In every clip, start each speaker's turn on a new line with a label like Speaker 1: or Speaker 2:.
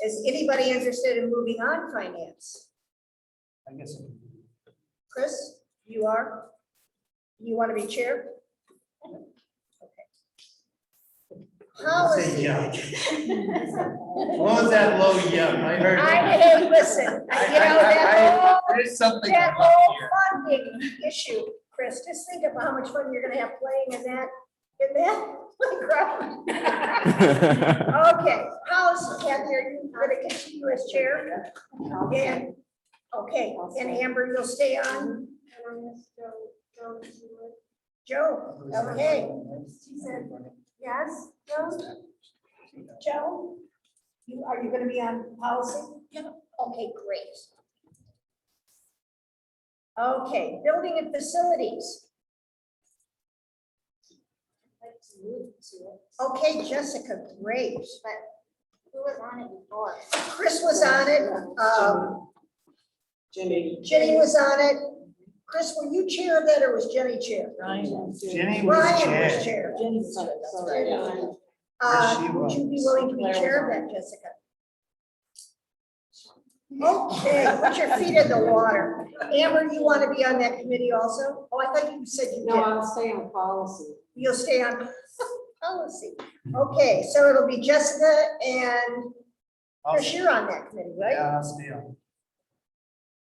Speaker 1: Is anybody interested in moving on finance?
Speaker 2: I guess. I can-
Speaker 1: Chris, you are? You want to be chair? Okay. How
Speaker 2: Say
Speaker 1: is,
Speaker 2: yeah. What was that low yum? I heard.
Speaker 1: I
Speaker 2: that.
Speaker 1: didn't listen, I- you know, that whole
Speaker 2: There's something
Speaker 1: That
Speaker 2: about
Speaker 1: whole
Speaker 2: here.
Speaker 1: funding issue, Chris, just think about how much fun you're gonna have playing in that, in that playground. Okay, how's Kathy, are you gonna continue as chair? And, okay, and Amber, you'll stay on? Joe, okay, yes, Joe? Joe? You, are you gonna be on policy? Yeah. Okay, great. Okay, building and facilities. Okay, Jessica, great. Who was on it before? Chris was on it, um,
Speaker 3: Jenny.
Speaker 1: Jenny was on it. Chris, were you chair of that or was Jenny chair?
Speaker 2: Jenny was
Speaker 1: Ryan was
Speaker 2: chair.
Speaker 1: chair.
Speaker 3: Jenny's on it, that's right.
Speaker 1: Uh,
Speaker 2: Yes, she
Speaker 1: would you be
Speaker 2: was.
Speaker 1: willing to be chair of that, Jessica? Okay, put your feet in the water. Amber, you want to be on that committee also? Oh, I thought you said you
Speaker 3: No,
Speaker 1: did.
Speaker 3: I'll stay on policy.
Speaker 1: You'll stay on policy. Okay, so it'll be Jessica and
Speaker 2: I'll-
Speaker 1: Chris, you're on that committee, right?
Speaker 2: Yeah, I'll stay on.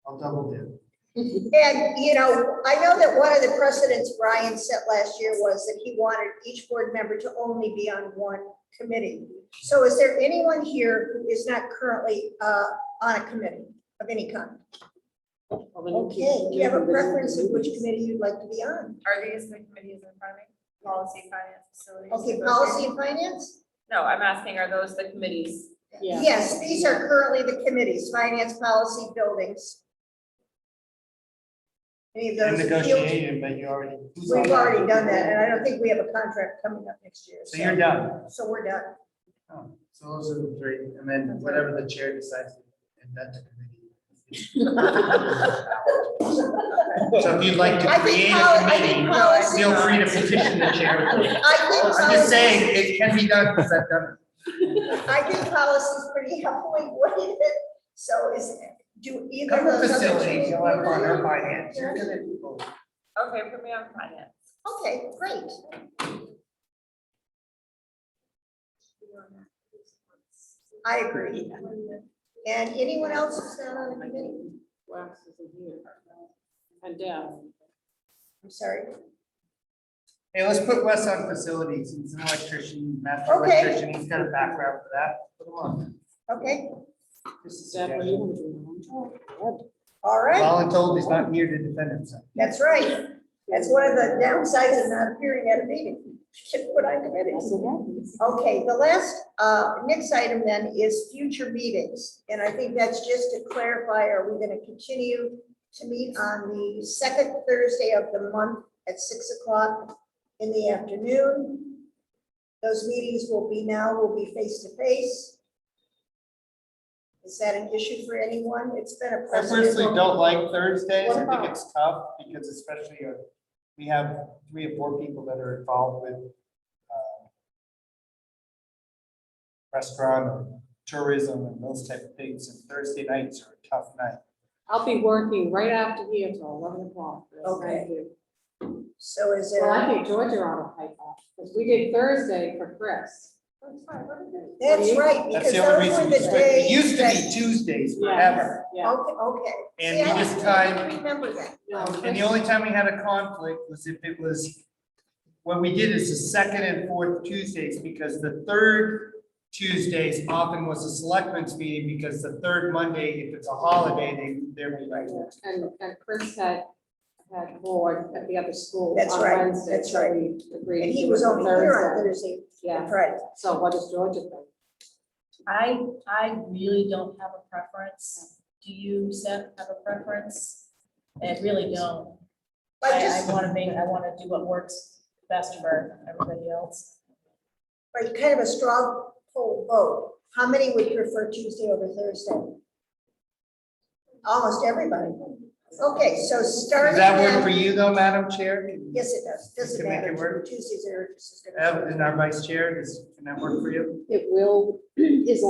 Speaker 2: I'll double dip.
Speaker 1: And, you know, I know that one of the precedents Ryan set last year was that he wanted each board member to only be on one committee. So is there anyone here who is not currently uh, on a committee of any kind? Okay, do you have a preference of which committee you'd like to be on?
Speaker 4: Are these the committees in front of me? Policy, finance, facilities?
Speaker 1: Okay,
Speaker 4: those are-
Speaker 1: policy and finance?
Speaker 4: No, I'm asking, are those the committees?
Speaker 3: Yeah.
Speaker 1: Yes, these are currently the committees, finance, policy, buildings. Any of
Speaker 2: And
Speaker 1: those?
Speaker 2: negotiating, but you already. who's on
Speaker 1: We've
Speaker 2: that?
Speaker 1: already done that, and I don't think we have a contract coming up next year.
Speaker 2: So you're done.
Speaker 1: So we're done.
Speaker 2: Oh, So those are the three, and then whatever the chair decides, and that's the committee. So if you'd like to
Speaker 1: I think
Speaker 2: create
Speaker 1: poli-
Speaker 2: a
Speaker 1: I think
Speaker 2: committee,
Speaker 1: policy-
Speaker 2: feel free to petition the chair.
Speaker 1: I think.
Speaker 2: I'm just
Speaker 1: policy-
Speaker 2: saying, it can be done, because I've done it.
Speaker 1: I think policy's pretty heavily weighted, so is, do either
Speaker 2: Cover
Speaker 1: of those. other
Speaker 2: facilities,
Speaker 1: two-
Speaker 2: you'll have fun, or finance, you're gonna do both.
Speaker 4: Okay, put me on finance.
Speaker 1: Okay, great. I agree. And anyone else who's not on the committee?
Speaker 3: Wax isn't here. And uh, Deb.
Speaker 1: I'm sorry.
Speaker 2: Hey, let's put Wes on facilities, he's an electrician, master
Speaker 1: Okay.
Speaker 2: electrician, he's got a background for that. Put him on.
Speaker 1: Okay,
Speaker 2: Just a
Speaker 3: Deb, what are
Speaker 2: suggestion.
Speaker 3: you gonna do?
Speaker 1: all right.
Speaker 2: All I'm told, he's not here to defend himself.
Speaker 1: That's right. That's one of the downsides of not appearing at a meeting. Should put on committees.
Speaker 3: That's what happens.
Speaker 1: Okay, the last, uh, next item then is future meetings, and I think that's just to clarify, are we gonna continue to meet on the second Thursday of the month at six o'clock in the afternoon? Those meetings will be now, will be face to face. Is that an issue for anyone? It's been a
Speaker 2: I personally
Speaker 1: precedent.
Speaker 2: don't like Thursdays, I
Speaker 3: What
Speaker 2: think
Speaker 3: about-
Speaker 2: it's tough, because especially, uh, we have three or four people that are involved with, uh, restaurant or tourism and those type of things, and Thursday nights are a tough night.
Speaker 3: I'll be working right after here till eleven o'clock. That's what I
Speaker 1: Okay.
Speaker 3: do.
Speaker 1: So is it?
Speaker 3: Well, I think Georgia ought to pipe up, because we did Thursday for Chris.
Speaker 1: That's right,
Speaker 2: That's
Speaker 1: because
Speaker 2: the only
Speaker 1: those were
Speaker 2: reason,
Speaker 1: the
Speaker 2: we
Speaker 1: days.
Speaker 2: switched. it used to
Speaker 1: that-
Speaker 2: be Tuesdays forever.
Speaker 3: Yes, Yeah.
Speaker 1: Okay, okay.
Speaker 2: And
Speaker 1: See,
Speaker 2: we
Speaker 1: I
Speaker 2: just
Speaker 1: don't
Speaker 2: tied-
Speaker 1: Remember that.
Speaker 3: No,
Speaker 2: And the
Speaker 3: Chris-
Speaker 2: only time we had a conflict was if it was, what we did is the second and fourth Tuesdays, because the third Tuesdays often was a selectmen's meeting, because the third Monday, if it's a holiday, they, they're like,
Speaker 3: And, and Chris had, had board at the other school
Speaker 1: That's
Speaker 3: on
Speaker 1: right,
Speaker 3: Wednesday.
Speaker 1: that's
Speaker 3: so
Speaker 1: right.
Speaker 3: we Agreed.
Speaker 1: And
Speaker 3: to
Speaker 1: he
Speaker 3: do
Speaker 1: was
Speaker 3: it
Speaker 1: only here on
Speaker 3: Thursday.
Speaker 1: Thursday,
Speaker 3: Yeah,
Speaker 1: Friday.
Speaker 3: so what does Georgia think?
Speaker 5: I, I really don't have a preference. Do you, Seth, have a preference? I really don't.
Speaker 1: I
Speaker 5: I,
Speaker 1: just-
Speaker 5: I wanna make, I wanna do what works best for everybody else.
Speaker 1: But kind of a straw poll vote. How many would prefer Tuesday over Thursday? Almost everybody. Okay, so starting.
Speaker 2: does that work for
Speaker 1: then-
Speaker 2: you though, Madam Chair?
Speaker 1: Yes, it does. Doesn't
Speaker 2: Can make
Speaker 1: matter.
Speaker 2: it work?
Speaker 1: Tuesdays are.
Speaker 2: Oh, Ev- And our vice chair, is, can that work for you?
Speaker 3: It will, is